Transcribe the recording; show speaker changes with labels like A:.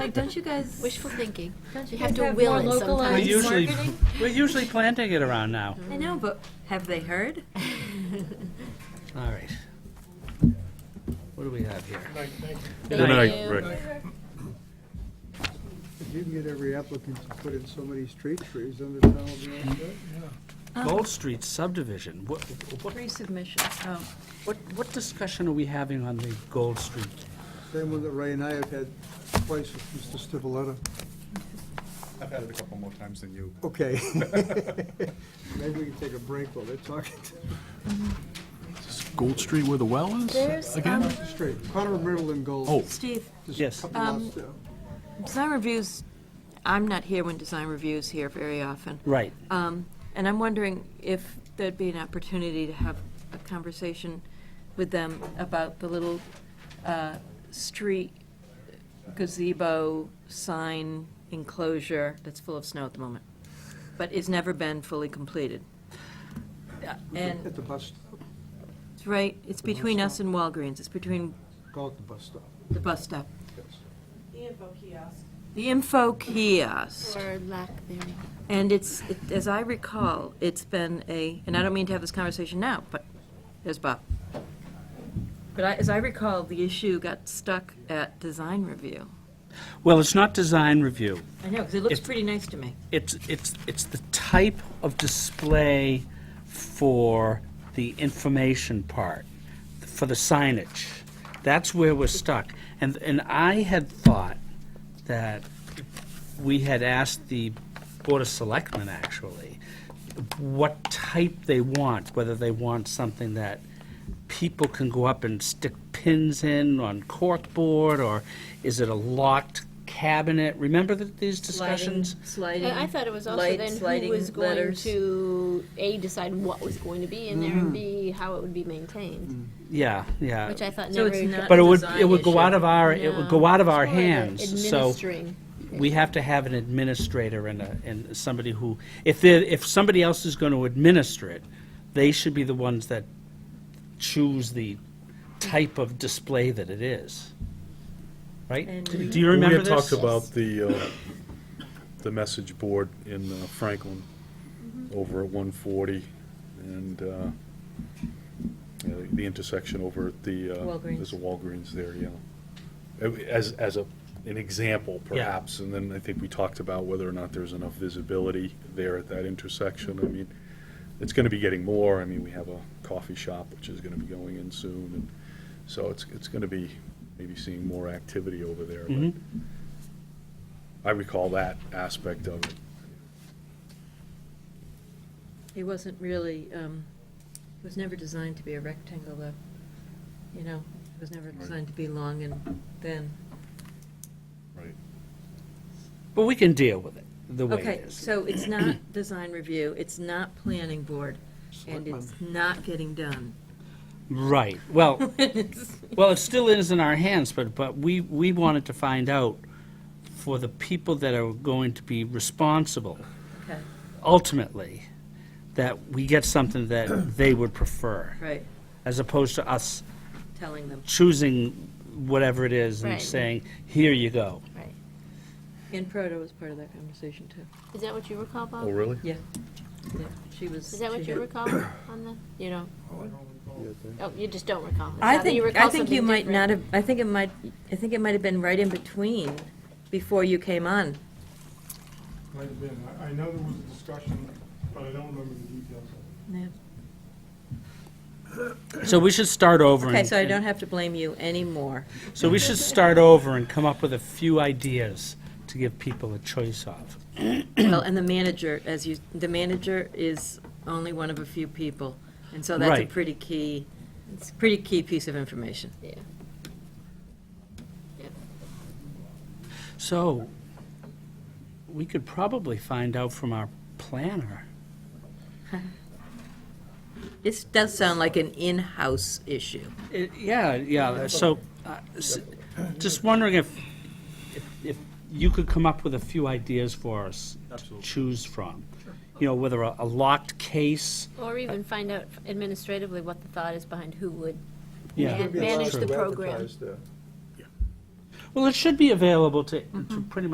A: Like, don't you guys?
B: Wishful thinking.
A: Don't
B: You
A: you
B: have
A: guys
B: to
A: have
B: will
A: more
B: it
A: localized
C: We're
B: sometimes.
C: usually,
A: marketing?
C: we're usually planting it around now.
A: I know, but have they heard?
C: All right. What do we have here?
D: Good night,
B: you.
D: Rick.
E: If you can get every applicant to put in so many street trees, then the town will be all set.
C: Gold Street subdivision. What, what,
A: Resubmission. Oh,
C: what, what discussion are we having on the Gold Street?
E: Same one that Ray and I have had twice with Mr. Stivaleta.
F: I've had it a couple more times than you.
E: Okay. Maybe we can take a break while they're talking
D: Gold Street where the well is?
A: There's, um,
D: Again?
E: to the street. Corner of Myrtle and Gold.
D: Oh.
A: Steve,
E: Just a
C: Yes.
E: couple
A: Um,
E: lots down.
A: design reviews, I'm not here when design review's here very often.
C: Right.
A: Um, And I'm wondering if there'd be an opportunity to have a conversation with them about the little uh, street gazebo sign enclosure that's full of snow at the moment, but is never been fully completed. Uh,
E: At
A: And,
E: the bus stop,
A: it's right, it's between us and Walgreens, it's between
E: call it the bus stop.
A: the bus stop.
E: Yes.
A: The info kiosk.
B: Or lack thereof.
A: And it's, it- as I recall, it's been a, and I don't mean to have this conversation now, but there's Bob. But I, as I recall, the issue got stuck at design review.
C: Well, it's not design review.
A: I know, because it looks
C: It's-
A: pretty nice to me.
C: It's, it's, it's the type of display for the information part, for the signage. That's where we're stuck. And, and I had thought that we had asked the Board of Selectmen, actually, what type they want, whether they want something that people can go up and stick pins in on corkboard, or is it a locked cabinet? Remember that these discussions?
A: Sliding.
B: I I thought it was also
A: lights,
B: then who
A: lighting,
B: was going
A: letters. Mm-hmm.
B: to, A, decide what was going to be in there, and B, how it would be maintained,
A: Mm.
C: Yeah, yeah.
B: which I thought
A: So
B: never.
A: it's not-
C: But it would,
A: design
C: it would go
A: issue.
C: out of our, it would go
B: No.
C: out of
B: It's more
C: our
B: like a
C: hands, so
B: Administering.
C: we have to have an administrator and a, and somebody who, if there, if somebody else is gonna administer it, they should be the ones that choose the type of display that it is. Right?
A: And
C: Do
A: we-
C: do you
D: We
C: remember
D: had
C: this?
D: talked about the, uh, the message board in uh, Franklin over at 140 and uh, yeah, the- the intersection over at the, uh,
A: Walgreens.
D: there's a Walgreens there, yeah. Uh, As, as a, an example perhaps, and then I think we talked about whether or not there's enough visibility there at that intersection. I mean, it's gonna be getting more. I mean, we have a coffee shop which is gonna be going in soon and so it's, it's gonna be maybe seeing more activity over there. but
C: Mhm.
D: I recall that aspect of it.
A: It wasn't really, um, it was never designed to be a rectangle, though. You know, it was never designed to be long and thin.
D: Right.
C: But we can deal with it, the way
A: Okay,
C: it is.
A: so it's not design review, it's not planning board, and
E: Selectmen.
A: it's not getting done.
C: Right, well, well, it still is in our hands, but, but we, we wanted to find out for the people that are going to be responsible
A: Okay,
C: ultimately that we get something that they would prefer,
A: right,
C: as opposed to us
A: telling them.
C: choosing whatever it is and
B: Right.
C: saying, here you go.
B: Right.
A: And Proto was part of that conversation, too.
B: Is that what you recall, Bob?
D: Oh, really?
A: Yeah. Yeah, She was.
B: Is that what
A: she
B: you
A: had-
B: recall on the, you know,
E: Yeah, thank
B: oh, you just don't recall. It's
A: I
B: not that
A: think,
B: recall
A: I think you
B: something
A: might
B: different.
A: not have, I think it might, I think it might have been right in between, before you came on.
G: Might have been. I, I know there was a discussion, but I don't remember the details of it.
C: So we should start over.
A: Okay,
C: and-
A: so I don't have to blame you anymore.
C: So we should start over and come up with a few ideas to give people a choice of.
A: Well, and the manager, as you, the manager is only one of a few people, and so that's a
C: Right.
A: pretty key, it's a pretty key piece of information.
C: So we could probably find out from our planner.
A: This does sound like an in-house issue.
C: Uh, Yeah, yeah, so, uh, s- just wondering if, if- if you could come up with a few ideas for us to choose from? You know, whether a a locked case,
B: Or even find out administratively what the thought is behind who would
C: yeah.
E: you.
B: Manage
E: Be allowed
B: the
E: to
B: program.
E: advertise there.
C: Well, it should be available to, to pretty much